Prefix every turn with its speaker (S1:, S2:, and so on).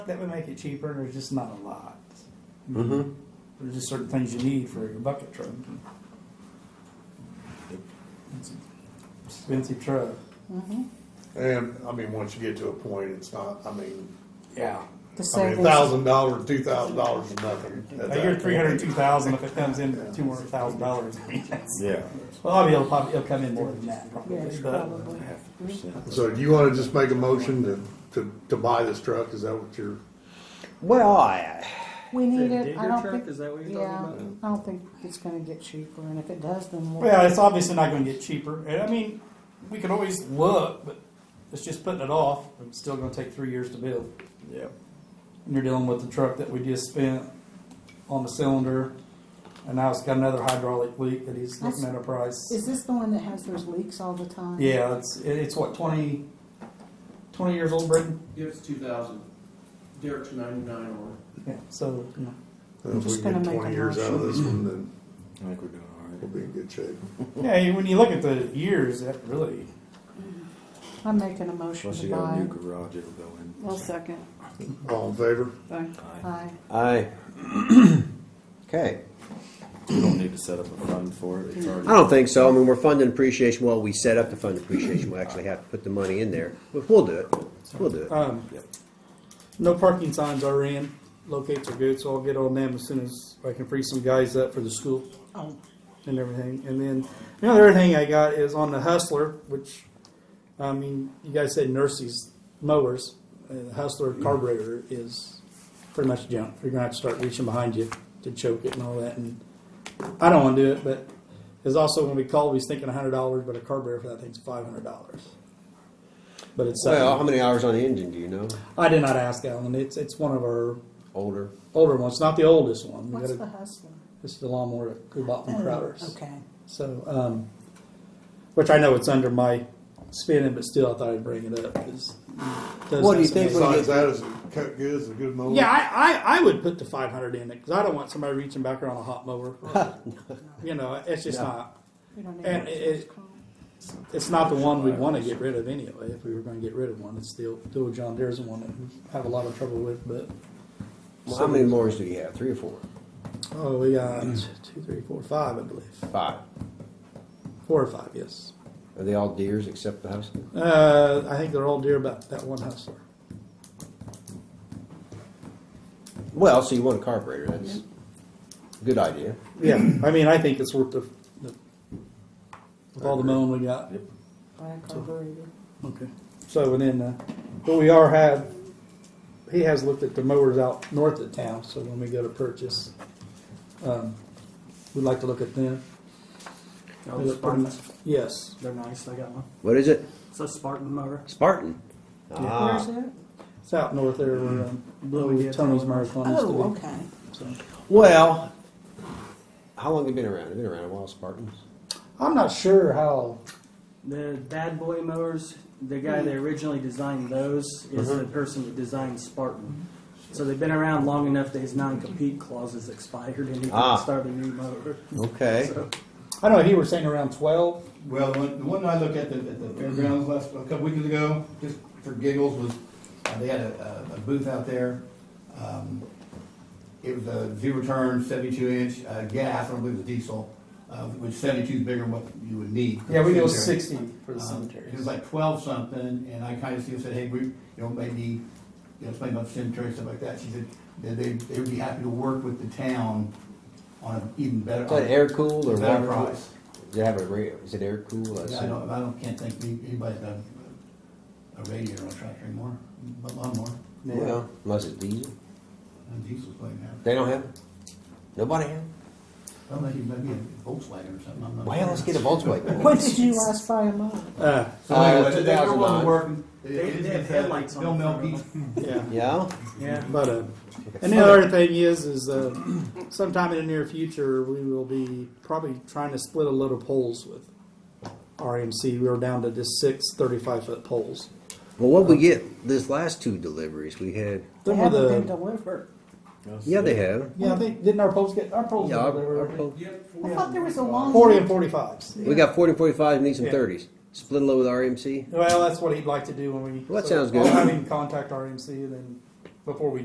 S1: that would make it cheaper, there's just not a lot.
S2: Mm-hmm.
S1: There's just certain things you need for your bucket truck. It's an Expensive truck.
S3: And, I mean, once you get to a point, it's not, I mean,
S1: Yeah.
S4: The
S3: I mean, a
S4: savings.
S3: thousand dollars, two thousand dollars is nothing. at
S1: I
S3: that
S1: hear
S3: point.
S1: three hundred two thousand if it comes in two hundred thousand dollars.
S2: Yeah.
S1: Well, I'll be able, probably, it'll come in more than that probably.
S4: Yeah,
S1: but-
S4: probably.
S3: So do you wanna just make a motion to, to, to buy this truck, is that what you're,
S2: Well, I,
S4: We
S5: Is it a
S4: need it,
S5: digger
S4: I don't
S5: truck?
S4: think.
S5: Is that what you're
S4: yeah,
S5: talking
S4: I don't think it's gonna get cheaper, and if it does, then we'll.
S1: Well, it's obviously not gonna get cheaper, and I mean, we can always look, but it's just putting it off, it's still gonna take three years to build.
S2: yeah.
S1: And you're dealing with the truck that we just spent on the cylinder, and now it's got another hydraulic leak that he's looking at a price.
S4: Is this the one that has those leaks all the time?
S1: Yeah, it's, it- it's what, 20, 20 years old, Britain?
S6: Give us two thousand. Derek's ninety-nine on
S1: Yeah, so, you know.
S3: if we
S4: just
S3: can
S4: gonna
S3: get
S4: make
S3: uh, twenty
S4: a
S3: years out of this one, then
S2: I think we're doing all
S3: we'll be in good shape.
S1: Yeah, when you look at the years, that really,
S4: I'm making a motion
S2: Plus,
S4: to
S2: you got a
S4: buy.
S2: new garage it'll go in.
S4: Well, second.
S3: All in favor?
S4: Aye.
S2: Aye. Okay.
S7: We don't need to set up a fund for it, it's already.
S8: I don't think so. I mean, we're funding appreciation. Well, we set up the fund appreciation. We actually have to put the money in there, but we'll do it. We'll do it.
S1: um, no parking signs are in, locates are good, so I'll get on them as soon as I can free some guys up for the school
S4: Oh,
S1: and everything. And then, the other thing I got is on the Hustler, which, I mean, you guys said nurses, mowers, uh, the Hustler carburetor is pretty much junk. You're gonna have to start reaching behind you to choke it and all that, and I don't wanna do it, but it's also when we called, we was thinking a hundred dollars, but a carburetor for that thing's five hundred dollars. But it's,
S8: Well, how
S1: uh,
S8: many hours on the engine do you know?
S1: I did not ask Alan, it's, it's one of our
S8: Older.
S1: older ones, not the oldest one. We
S4: what's
S1: got
S4: the
S1: a-
S4: hustler?
S1: This is the lawnmower that we bought from Crowder's.
S4: Okay.
S1: So, um, which I know it's under my spinning, but still I thought I'd bring it up. 'cause it does
S8: What
S1: have
S8: do you
S1: some-
S8: think?
S3: Besides that, is it cut good, is it good mower?
S1: Yeah, I, I, I would put the 500 in it because I don't want somebody reaching back around a hot mower. you know, it's just not.
S4: We don't
S1: And
S4: need.
S1: it- it- It's not the one we'd want to get rid of anyway. If we were going to get rid of one, it's the old, the old John Deere's one that we have a lot of trouble with. But
S8: Well, how many mowers do you have? Three or four?
S1: oh, we got two, three, four, five, I believe,
S8: Five.
S1: four or five, yes.
S8: Are they all deers except the hustler?
S1: Uh, I think they're all deer about that one hustler.
S8: Well, so you want a carburetor. That's a good idea.
S1: Yeah, I mean, I think it's worth the, the with all the mowing we got.
S4: Buy a carburetor.
S1: Okay. So and then, uh, but we are have, he has looked at the mowers out north of town, so when we go to purchase, um, we'd like to look at them.
S5: about?
S9: Oh,
S1: They
S5: Those
S1: look pretty-
S5: Spartans,
S1: Yes.
S5: they're nice, I got one.
S8: What is it?
S5: It's a Spartan mower.
S8: Spartan.
S4: Where's
S8: Ah.
S4: it?
S1: It's out north there
S9: Hmm.
S1: where, um,
S5: Blue
S1: where
S5: Indian
S1: Tony's
S5: Town.
S1: marathon used
S4: Oh,
S1: to
S4: okay.
S1: be. So.
S8: Well, how long have you been around? Have you been around a while, Spartans?
S1: I'm not sure how,
S5: The bad boy mowers, the guy that originally designed those is the person that designed Spartan. So they've been around long enough that his non-compete clause is expired and he can
S8: Ah.
S5: start a new mower.
S8: Okay.
S5: So,
S1: I know he was saying around twelve.
S9: Well, the one, the one I looked at the, at the fairgrounds last, a couple weeks ago, just for giggles, was, uh, they had a, a- a booth out there. Um, It was a zero turn, seventy-two inch, uh, gas, I don't believe it was diesel, uh, which seventy-two is bigger than what you would need. for
S1: Yeah, we go
S9: cemetery.
S1: sixty for the
S9: Um,
S1: cemeteries.
S9: It was like twelve something, and I kinda see, said, hey, we, you know, maybe, you know, explain about the cemetery, and stuff like that. She said, that they, they would be happy to work with the town on an even better.
S8: Is that air cooled or
S9: Better
S8: water cooled?
S9: price.
S8: Does it have a radio? Is it air cooled? I
S9: Yeah, I
S8: assume.
S9: don't, I don't, can't think any- anybody's got a radiator on a tractor anymore, but lawnmower,
S8: Well, unless it's diesel.
S9: and diesel's playing now.
S8: They don't have it. Nobody have it.
S9: Unless you maybe a Volkswagen or something, I'm not.
S8: Well, let's
S9: sure.
S8: get a Volkswagen.
S4: When did you last buy a mower?
S1: Uh,
S9: So
S8: Uh,
S9: anyway, they- they're
S8: 2009.
S9: willing to work.
S5: They, they have headlights on
S9: Bill
S5: the front of
S9: Melky's
S5: them.
S1: yeah.
S8: Yeah?
S5: Yeah.
S1: But uh, and the other thing is, is uh, sometime in the near future, we will be probably trying to split a load of poles with RMC. We were down to just six 35 foot poles.
S8: Well, what we get this last two deliveries we had.
S4: They
S1: Them were
S4: haven't
S1: the
S4: been delivered.
S8: Yeah, they have.
S1: yeah, I think didn't our poles get our poles?
S8: Yeah,
S1: were
S8: our-
S1: delivered,
S8: our
S1: right?
S8: pol-
S6: it. Yep.
S4: I thought there was a long.
S1: 40 and 45s.
S8: we got 40 and 45 and need some
S1: Yeah.
S8: 30s. Split a load with RMC.
S1: Well, that's what he'd like to do when we.
S8: Well, that sounds good.
S1: I'll have him contact RMC and then before we